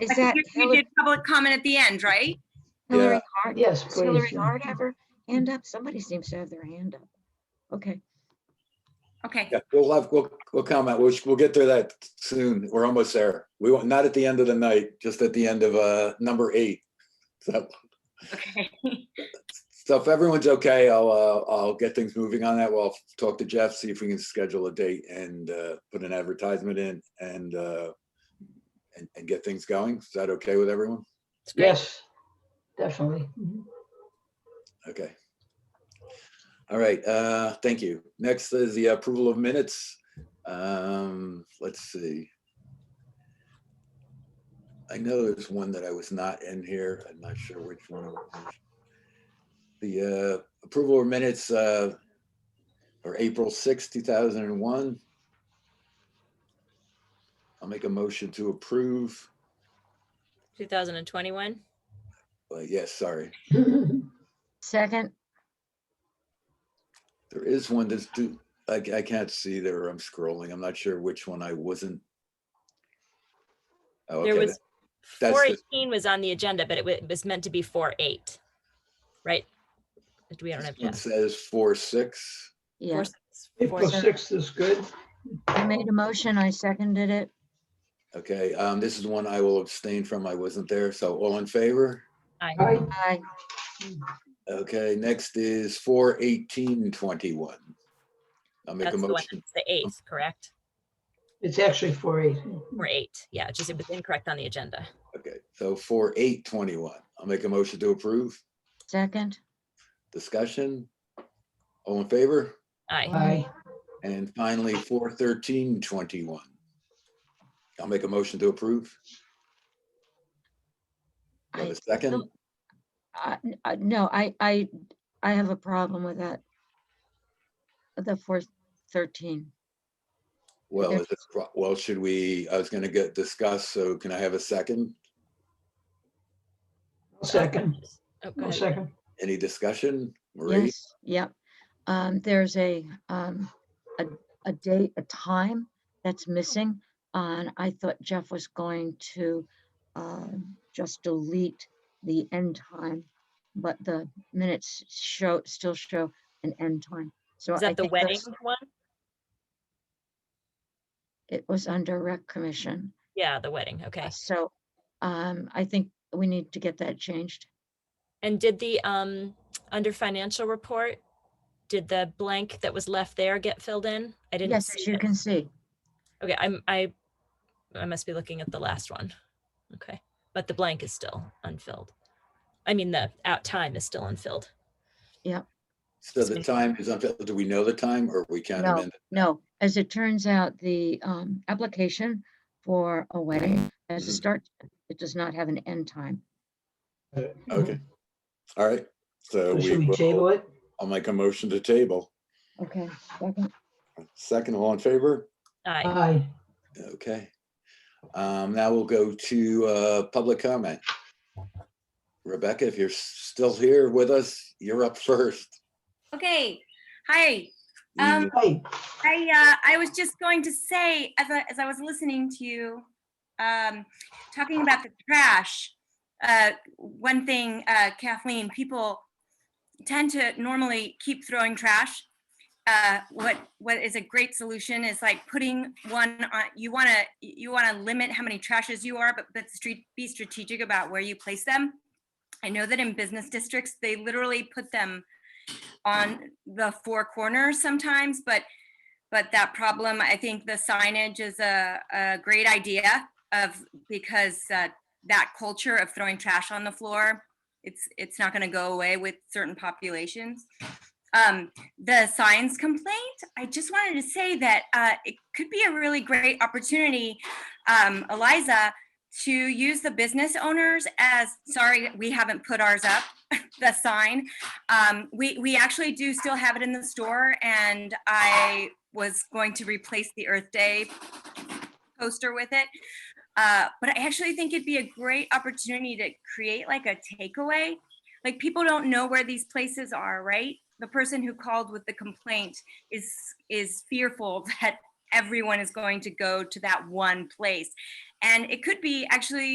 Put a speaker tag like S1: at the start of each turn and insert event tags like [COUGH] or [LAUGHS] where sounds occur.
S1: Is
S2: I
S1: that
S2: think We
S1: Hillary
S2: did public comment at the end, right?
S1: Hillary
S3: Yeah.
S1: Hart?
S3: Yes,
S1: Does
S3: please.
S1: Hillary
S3: yeah.
S1: Hart have her hand up? Somebody seems to have their hand up. Okay,
S2: Okay,
S4: Yeah, we'll have, we'll, we'll comment. We'll, we'll get to that soon. We're almost there. We want, not at the end of the night, just at the end of, uh, number eight. So,
S2: okay.
S4: so if everyone's okay, I'll, uh, I'll get things moving on that. We'll talk to Jeff, see if we can schedule a date and, uh, put an advertisement in and, uh, and, and get things going. Is that okay with everyone?
S3: Yes, definitely.
S4: Okay. All right, uh, thank you. Next is the approval of minutes. Um, let's see. I know there's one that I was not in here. I'm not sure which one. it was. The, uh, approval of minutes, uh, or April sixth, two thousand and one. I'll make a motion to approve.
S5: 2021.
S4: But uh, yes, sorry.
S1: second,
S4: There is one that's do, I, I can't see there. I'm scrolling. I'm not sure which one I wasn't. Oh,
S5: There
S4: okay.
S5: was
S4: the-
S5: 418 was on the agenda, but it wa- it was meant to be 48, right? Do we, I don't have.
S4: It says four, six.
S1: yeah.
S3: April sixth is good.
S1: I made a motion, I seconded it.
S4: Okay, um, this is one I will abstain from. I wasn't there. So all in favor?
S3: I,
S1: I,
S4: Okay, next is four, eighteen, twenty-one. I'll make
S5: That's
S4: a
S5: the one,
S4: motion.
S5: that's the eighth, correct?
S3: it's actually four eight.
S5: Or eight, yeah, it's just it was incorrect on the agenda.
S4: Okay, so four, eight, twenty-one. I'll make a motion to approve.
S1: second,
S4: Discussion? All in favor?
S5: Aye,
S3: I,
S4: And finally, four thirteen twenty-one. I'll make a motion to approve. Do I have a second?
S1: don't- I, Uh, n- I- no, I, I, I have a problem with that. The four thirteen,
S4: Well,
S1: there-
S4: is it pro- well, should we, I was gonna get discussed, so can I have a second?
S3: second,
S5: oh, go
S3: no
S5: ahead.
S3: second.
S4: Any discussion? Marie?
S1: yes, yep. Um, there's a, um, a, a date, a time that's missing. And I thought Jeff was going to, um, just delete the end time. But the minutes show, still show an end time. So
S5: Is
S1: I
S5: that the
S1: think that's-
S5: wedding one?
S1: It was under rec commission.
S5: Yeah, the wedding, okay.
S1: So um, I think we need to get that changed.
S5: And did the, um, under financial report, did the blank that was left there get filled in? I didn't
S1: Yes, as
S5: see
S1: you
S5: it.
S1: can see.
S5: Okay, I'm, I, I must be looking at the last one. Okay, but the blank is still unfilled. I mean, the out time is still unfilled.
S4: So the time is, until- do we know the time or we can't
S1: No.
S4: amend? it?
S1: No, as it turns out, the um, application for a wedding has a
S4: Mhm.
S1: start, it does not have an end time.
S4: Okay, all right, so
S3: So
S4: we,
S3: Should we table
S4: will-
S3: it?
S4: I'll make a motion to table.
S1: Okay. second.
S4: Second, all in favor?
S5: Aye.
S3: Aye.
S4: Okay. Um, now we'll go to, uh, public comment. Rebecca, if you're s- still here with us, you're up first.
S2: Okay, hi.
S4: You-
S2: Um,
S3: Aye.
S2: I, uh, I was just going to say, as I, as I was listening to you, um, talking about the trash, uh, one thing, uh, Kathleen, people tend to normally keep throwing trash. Uh, what, what is a great solution is like putting one on, you want to, you want to limit how many trashes you are, but, but street, be strategic about where you place them. I know that in business districts, they literally put them on the four corners sometimes, but but that problem, I think the signage is a, a great idea of, because uh, that culture of throwing trash on the floor, it's, it's not gonna go away with certain populations. Um, the signs complaint, I just wanted to say that uh, it could be a really great opportunity, um, Eliza, to use the business owners as, sorry, we haven't put ours up, [LAUGHS] the sign. Um, we, we actually do still have it in the store and I was going to replace the Earth Day poster with it. Uh, but I actually think it'd be a great opportunity to create like a takeaway. Like people don't know where these places are, right? The person who called with the complaint is is fearful [LAUGHS] that everyone is going to go to that one place. And it could be actually